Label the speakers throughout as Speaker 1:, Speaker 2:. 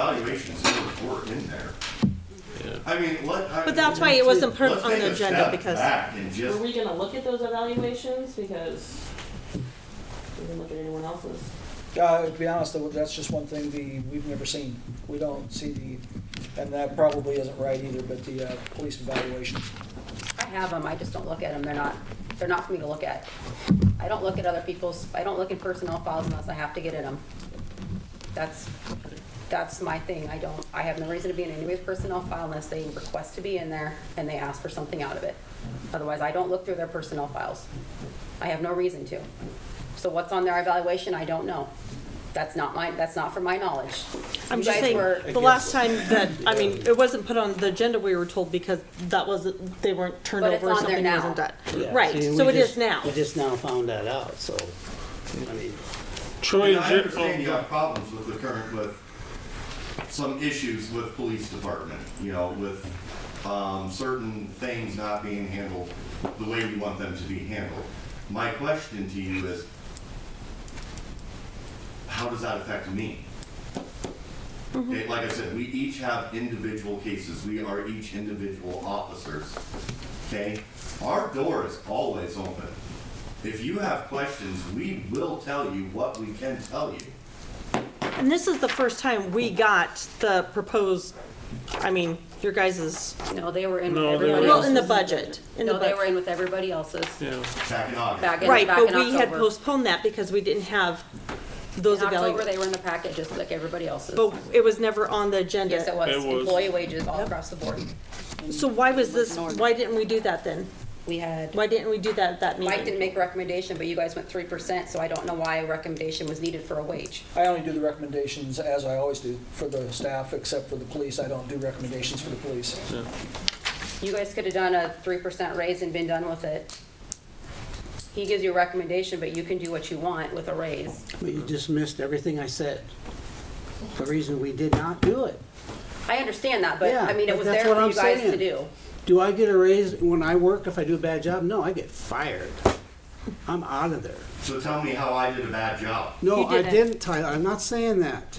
Speaker 1: evaluation centers were in there. I mean, let. I-
Speaker 2: But that's why it wasn't per-
Speaker 1: let's
Speaker 2: on the
Speaker 1: take a
Speaker 2: agenda,
Speaker 1: step
Speaker 2: because-
Speaker 1: Back and just
Speaker 3: Were we gonna look at those evaluations? Because we didn't look at anyone else's.
Speaker 4: Uh, to be honest, though, that's just one thing the, we've never seen. We don't see the, and that probably isn't right either, but the, uh, police evaluation.
Speaker 5: I have them, I just don't look at them, they're not, they're not for me to look at. I don't look at other people's, I don't look at personnel files unless I have to get in them. That's, that's my thing, I don't, I have no reason to be in anybody's personnel file unless they request to be in there and they ask for something out of it. Otherwise, I don't look through their personnel files. I have no reason to. So what's on their evaluation, I don't know. That's not my, that's not for my knowledge.
Speaker 2: I'm
Speaker 5: You
Speaker 2: just
Speaker 5: guys
Speaker 2: saying,
Speaker 5: were-
Speaker 2: the last time that, I mean, it wasn't put on the agenda, we were told because that wasn't, they weren't turned
Speaker 5: But it's
Speaker 2: over, or
Speaker 5: on there
Speaker 2: something
Speaker 5: now.
Speaker 2: wasn't done.
Speaker 6: Yeah,
Speaker 2: Right,
Speaker 6: see,
Speaker 2: so
Speaker 6: we
Speaker 2: it is
Speaker 6: just-
Speaker 2: now.
Speaker 6: We just now found that out, so, I mean,
Speaker 1: I mean,
Speaker 7: Troy,
Speaker 1: I
Speaker 7: is your,
Speaker 1: understand you have problems with the current, with some issues with police department, you know, with, um, certain things not being handled the way you want them to be handled. My question to you is, how does that affect me? Okay, like I said, we each have individual cases, we are each individual officers, okay? Our door is always open. If you have questions, we will tell you what we can tell you.
Speaker 2: And this is the first time we got the proposed, I mean, your guys's,
Speaker 5: No, they were in with
Speaker 7: No, they
Speaker 5: everybody
Speaker 7: were-
Speaker 2: well,
Speaker 5: else's.
Speaker 2: in the budget, in the
Speaker 5: No, they were
Speaker 2: budget.
Speaker 5: in with everybody else's.
Speaker 7: yeah,
Speaker 1: Back in August.
Speaker 5: Back in-
Speaker 2: Right,
Speaker 5: back
Speaker 2: but
Speaker 5: in
Speaker 2: we had
Speaker 5: October.
Speaker 2: postponed that because we didn't have those
Speaker 5: In October,
Speaker 2: evaluations.
Speaker 5: they were in the packet, just like everybody else's.
Speaker 2: But it was never on the agenda.
Speaker 5: Yes, it was.
Speaker 7: It was.
Speaker 5: Employee wages all across the board.
Speaker 2: So why was this,
Speaker 5: Norm.
Speaker 2: why didn't we do that then?
Speaker 5: We had,
Speaker 2: Why didn't we do that at that
Speaker 5: Mike didn't
Speaker 2: meeting?
Speaker 5: make a recommendation, but you guys went three percent, so I don't know why a recommendation was needed for a wage.
Speaker 4: I only do the recommendations as I always do for the staff, except for the police. I don't do recommendations for the police.
Speaker 5: You guys could have done a three percent raise and been done with it. He gives you a recommendation, but you can do what you want with a raise.
Speaker 6: but you just missed everything I said. The reason we did not do it.
Speaker 5: I understand that, but
Speaker 6: Yeah,
Speaker 5: I mean, it
Speaker 6: but
Speaker 5: was
Speaker 6: that's
Speaker 5: there for
Speaker 6: what I'm
Speaker 5: you guys to
Speaker 6: saying.
Speaker 5: do.
Speaker 6: Do I get a raise when I work if I do a bad job? No, I get fired. I'm out of there.
Speaker 1: So tell me how I did a bad job.
Speaker 6: No,
Speaker 2: You
Speaker 6: I
Speaker 2: didn't.
Speaker 6: didn't, Tyler, I'm not saying that.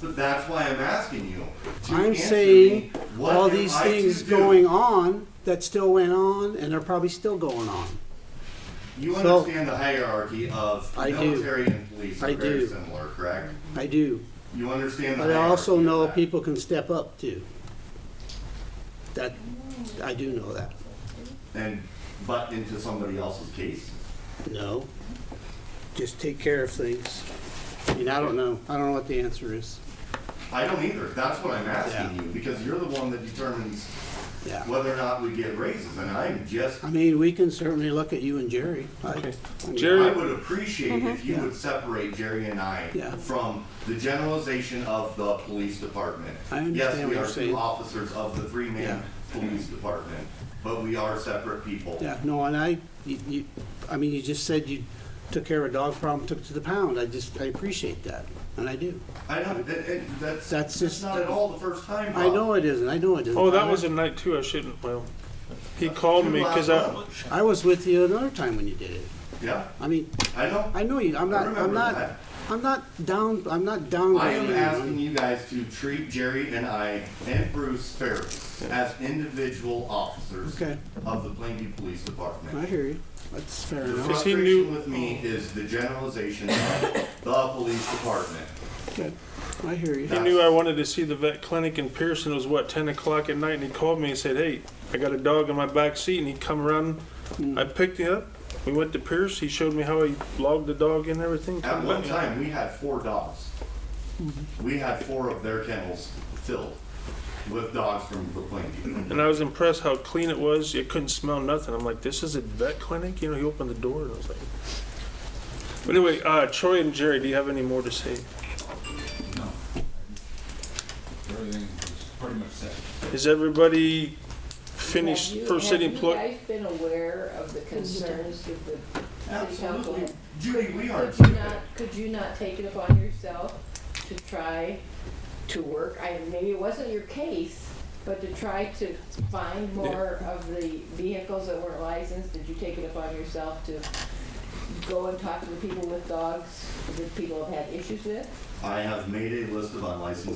Speaker 1: But that's why I'm asking you to
Speaker 6: I'm
Speaker 1: answer
Speaker 6: saying
Speaker 1: me, what
Speaker 6: all
Speaker 1: am
Speaker 6: these
Speaker 1: I to
Speaker 6: things
Speaker 1: do?
Speaker 6: going on that still went on and are probably still going on.
Speaker 1: You
Speaker 6: So-
Speaker 1: understand the hierarchy of
Speaker 6: I do.
Speaker 1: military and police
Speaker 6: I
Speaker 1: are very
Speaker 6: do.
Speaker 1: similar, correct?
Speaker 6: I do.
Speaker 1: You understand the
Speaker 6: But
Speaker 1: hierarchy.
Speaker 6: I also
Speaker 1: of
Speaker 6: know
Speaker 1: that.
Speaker 6: people can step up too. That, I do know that.
Speaker 1: And butt into somebody else's case.
Speaker 6: No. Just take care of things. I mean, I don't know. I don't know what the answer is.
Speaker 1: I don't either. That's what I'm asking
Speaker 6: Yeah.
Speaker 1: you because you're the one that determines
Speaker 6: Yeah.
Speaker 1: whether or not we get raises, and I'm just.
Speaker 6: I mean, we can certainly look at you and Jerry. I- I mean,
Speaker 7: Jerry-
Speaker 1: I would appreciate if you would separate Jerry and I
Speaker 6: Yeah.
Speaker 1: from the generalization of the police department.
Speaker 6: I understand
Speaker 1: Yes, we
Speaker 6: what
Speaker 1: are
Speaker 6: you're
Speaker 1: two
Speaker 6: saying.
Speaker 1: officers of the three-man police department, but we are separate people.
Speaker 6: Yeah, no, and I, you, you, I mean, you just said you took care of a dog problem, took it to the pound. I just, I appreciate that, and I do.
Speaker 1: I know, that, that- that's,
Speaker 6: That's
Speaker 1: that's
Speaker 6: just-
Speaker 1: not at all the first time,
Speaker 6: I
Speaker 1: Rob.
Speaker 6: know it isn't. I know it isn't.
Speaker 7: Oh, that
Speaker 6: I-
Speaker 7: was a night too, I shouldn't, well, he called
Speaker 1: Two
Speaker 7: me,
Speaker 1: last
Speaker 7: cause I,
Speaker 1: months.
Speaker 6: I was with you another time when you did it.
Speaker 1: Yeah,
Speaker 6: I mean,
Speaker 1: I know.
Speaker 6: I know you. I'm
Speaker 1: I
Speaker 6: not. I'm
Speaker 1: remember
Speaker 6: not.
Speaker 1: that.
Speaker 6: I'm not down. I'm not
Speaker 1: I am
Speaker 6: downgrading. you.
Speaker 1: asking you guys to treat Jerry and I and Bruce fairly as individual officers
Speaker 6: Okay.
Speaker 1: of the Plainview Police Department.
Speaker 6: I hear you. That's fair
Speaker 1: The
Speaker 6: enough.
Speaker 7: Is he
Speaker 1: frustration
Speaker 7: new-
Speaker 1: with me is the generalization of the police department.
Speaker 6: Good. I hear you.
Speaker 7: he knew I wanted to see the vet clinic in Pearson, it was what, ten o'clock at night, and he called me and said, hey, I got a dog in my back seat, and he come around,
Speaker 6: Hmm.
Speaker 7: I picked it up, we went to Pierce, he showed me how he logged the dog and everything.
Speaker 1: At
Speaker 7: come
Speaker 1: one
Speaker 7: back.
Speaker 1: time, we had four dogs. We had four of their kennels filled with dogs from the Plainview.
Speaker 7: And I was impressed how clean it was, it couldn't smell nothing, I'm like, this is a vet clinic, you know, he opened the door, and I was like. But anyway, uh, Troy and Jerry, do you have any more to say?
Speaker 8: No. Everything is pretty much set.
Speaker 7: Is everybody finished
Speaker 9: Have you-
Speaker 7: first city
Speaker 9: Have
Speaker 7: employee?
Speaker 9: you guys been aware of the concerns with the city council?
Speaker 1: Absolutely. Judy, we are
Speaker 9: Could you
Speaker 1: stupid.
Speaker 9: not, could you not take it upon yourself to try to work, I, maybe it wasn't your case, but to try to find more of the vehicles that weren't licensed, did you take it upon yourself to go and talk to the people with dogs that people have had issues with?
Speaker 1: I have made a list of unlicensed